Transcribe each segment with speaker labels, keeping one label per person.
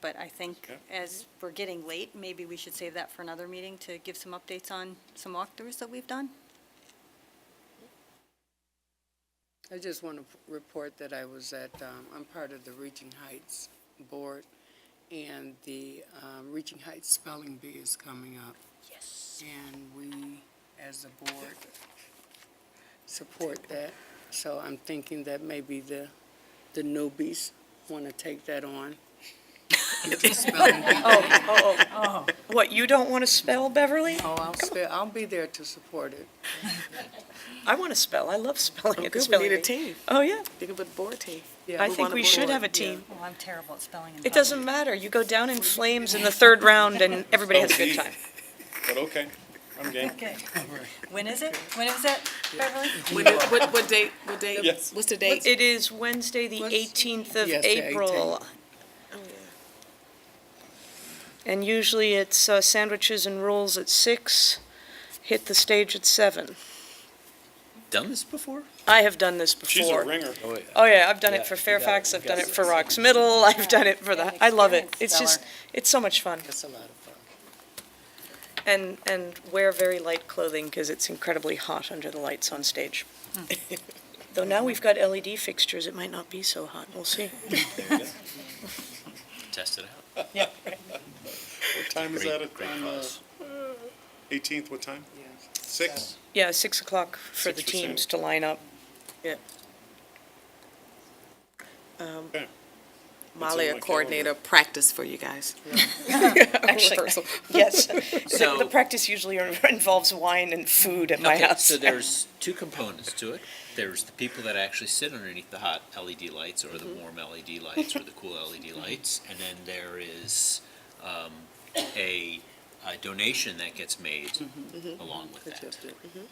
Speaker 1: but I think
Speaker 2: Okay.
Speaker 1: as we're getting late, maybe we should save that for another meeting to give some updates on some walkthroughs that we've done.
Speaker 3: I just want to report that I was at, um, I'm part of the Reaching Heights Board, and the um, Reaching Heights Spelling Bee is coming up. Yes. And we, as a board, support that. So I'm thinking that maybe the, the newbies want to take that on. Spelling bee.
Speaker 4: What, you don't want to spell, Beverly?
Speaker 3: Oh, I'll spell, I'll be there to support it.
Speaker 4: I want to spell. I love spelling
Speaker 5: Oh,
Speaker 4: at the
Speaker 5: good. We
Speaker 4: spelling
Speaker 5: need a
Speaker 4: bee.
Speaker 5: team.
Speaker 4: Oh, yeah.
Speaker 5: You can put the board team.
Speaker 3: Yeah,
Speaker 4: I
Speaker 3: we
Speaker 4: think
Speaker 5: want a
Speaker 4: we should
Speaker 5: board,
Speaker 4: have a
Speaker 5: yeah.
Speaker 4: team.
Speaker 1: Well, Oh, I'm terrible at spelling
Speaker 4: It doesn't matter. You go down in flames in the third round and everybody has a good time.
Speaker 2: But okay, I'm game.
Speaker 1: Okay. When is it? When is it, Beverly?
Speaker 5: When it- What, what date, what date?
Speaker 2: Yes.
Speaker 5: What's the date?
Speaker 4: It is Wednesday, the
Speaker 3: What's-
Speaker 4: 18th of
Speaker 3: Yes, the 18th.
Speaker 4: April.
Speaker 5: Oh, yeah.
Speaker 4: And usually it's uh, sandwiches and rolls at six. hit the stage at seven.
Speaker 6: Done this before?
Speaker 4: I have done this before.
Speaker 2: She's a ringer.
Speaker 6: Oh, yeah.
Speaker 4: Oh yeah, I've done
Speaker 6: Yeah,
Speaker 4: it for
Speaker 6: you got it,
Speaker 4: Fairfax,
Speaker 6: you
Speaker 4: I've
Speaker 6: got
Speaker 4: done it
Speaker 6: it.
Speaker 4: for Rocks Middle, I've done it for the, I love it.
Speaker 1: Experienced
Speaker 4: It's just, it's so much fun.
Speaker 3: That's a lot of fun.
Speaker 4: And, and wear very light clothing because it's incredibly hot under the lights on stage.
Speaker 6: Hmm.
Speaker 4: Though now we've got LED fixtures, it might not be so hot, we'll see.
Speaker 6: Test it out.
Speaker 2: What time is
Speaker 6: Great-
Speaker 2: that uh, at,
Speaker 6: Great
Speaker 2: on the
Speaker 6: cause.
Speaker 2: eighteenth, what time?
Speaker 3: Yes.
Speaker 2: Six?
Speaker 4: Yeah, six o'clock for the
Speaker 2: Six for
Speaker 4: teams
Speaker 2: Sam.
Speaker 4: to line up. Um,
Speaker 2: Okay.
Speaker 5: Molly,
Speaker 2: on
Speaker 5: a
Speaker 2: my
Speaker 5: coordinator, practice for you guys.
Speaker 4: Actually,
Speaker 5: Rehearsal.
Speaker 4: yes. The
Speaker 6: So-
Speaker 4: the practice usually involves wine and food at my
Speaker 6: Okay,
Speaker 4: house.
Speaker 6: So there's two components to it. There's the people that actually sit underneath the hot LED lights or the
Speaker 4: Mm-hmm.
Speaker 6: warm LED lights or the cool LED lights, and then there is um, a, a donation that gets made
Speaker 4: Mm-hmm.
Speaker 6: along with
Speaker 3: Good job,
Speaker 6: that.
Speaker 3: Dick. Do you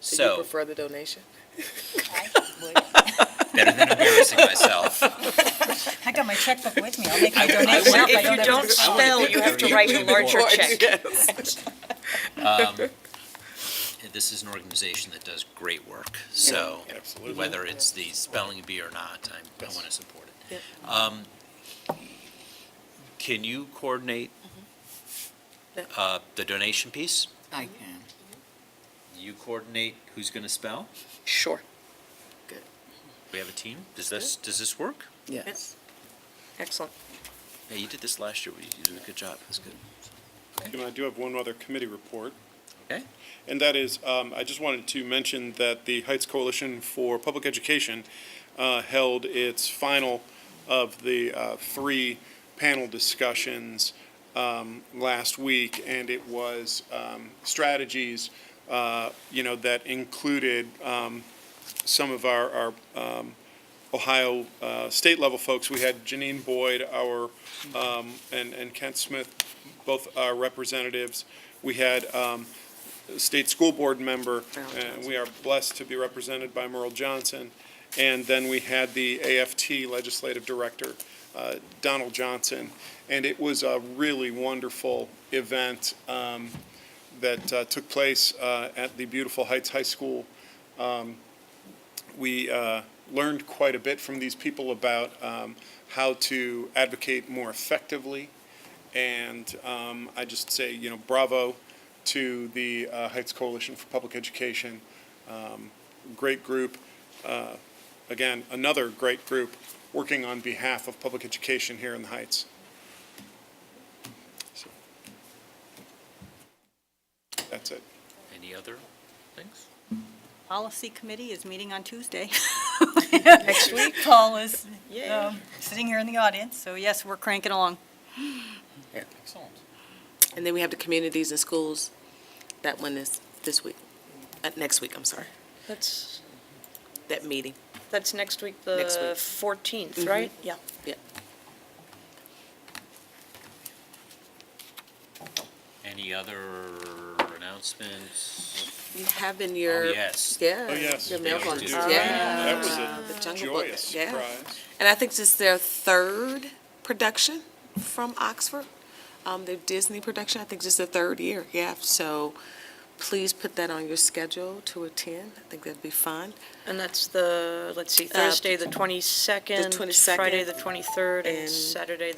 Speaker 6: So
Speaker 5: prefer the donation?
Speaker 6: better than embarrassing myself.
Speaker 1: I got my checkbook with me. I'll make my
Speaker 6: I- I would-
Speaker 1: donation up. I
Speaker 6: if
Speaker 1: don't
Speaker 6: you
Speaker 1: have
Speaker 4: don't
Speaker 1: to-
Speaker 6: I wanna
Speaker 4: spell,
Speaker 6: think
Speaker 4: you have to
Speaker 6: very
Speaker 4: write a
Speaker 6: important.
Speaker 4: larger check.
Speaker 6: This is an organization that does great work, so
Speaker 2: Absolutely.
Speaker 6: whether it's the spelling bee or not, I, I want to support it. Um, Can you coordinate uh, the donation piece?
Speaker 3: I can.
Speaker 6: You coordinate who's going to spell?
Speaker 4: Sure.
Speaker 6: We have a team? Does this, does this work?
Speaker 3: Yes.
Speaker 4: Excellent.
Speaker 6: Yeah, you did this last year. You did a good job. That's good.
Speaker 2: And I do have one other committee report.
Speaker 6: Okay.
Speaker 2: And that is, um, I just wanted to mention that the Heights Coalition for Public Education, uh, held its final of the, uh, three panel discussions, um, last week, and it was, um, strategies, uh, you know, that included, um, some of our, our, um, Ohio, uh, state level folks. We had Janine Boyd, our, um, and, and Kent Smith, both our representatives. We had, um, state school board member, and we are blessed to be represented by Merle Johnson. And then we had the AFT Legislative Director, uh, Donald Johnson. And it was a really wonderful event um, that uh, took place uh, at the beautiful Heights High School. Um, We uh, learned quite a bit from these people about um, how to advocate more effectively. And um, I just say, you know, bravo to the uh, Heights Coalition for Public Education. Um, Great group. Uh, Again, another great group working on behalf of public education here in the Heights. So, That's it.
Speaker 6: Any other things?
Speaker 1: Policy committee is meeting on Tuesday.
Speaker 4: Next week?
Speaker 1: Paul is
Speaker 4: Yay.
Speaker 1: um, sitting here in the audience, so yes, we're cranking along.
Speaker 6: Excellent.
Speaker 5: And then we have the communities and schools, that one is this week, uh, next week, I'm sorry,
Speaker 4: That's,
Speaker 5: that meeting.
Speaker 4: that's next week,
Speaker 5: Next
Speaker 4: the
Speaker 5: week.
Speaker 4: fourteenth, right? Yeah.
Speaker 6: Any other announcements?
Speaker 5: You have in your.
Speaker 6: Oh, yes.
Speaker 5: Yeah.
Speaker 2: Oh, yes.
Speaker 5: Your
Speaker 2: we always
Speaker 5: mailbox,
Speaker 6: do.
Speaker 5: yeah.
Speaker 2: That was
Speaker 5: The
Speaker 2: a
Speaker 5: Jungle Book,
Speaker 2: joyous
Speaker 5: yeah.
Speaker 2: surprise.
Speaker 5: And I think this is their third production from Oxford, um, their Disney production. I think this is the third year, yeah. So please put that on your schedule to attend. I think that'd be fun.
Speaker 4: And that's Uh, the, let's see, Thursday, the twenty-second,
Speaker 5: 22nd,
Speaker 4: Friday, the twenty-third, and
Speaker 5: and-
Speaker 4: Saturday,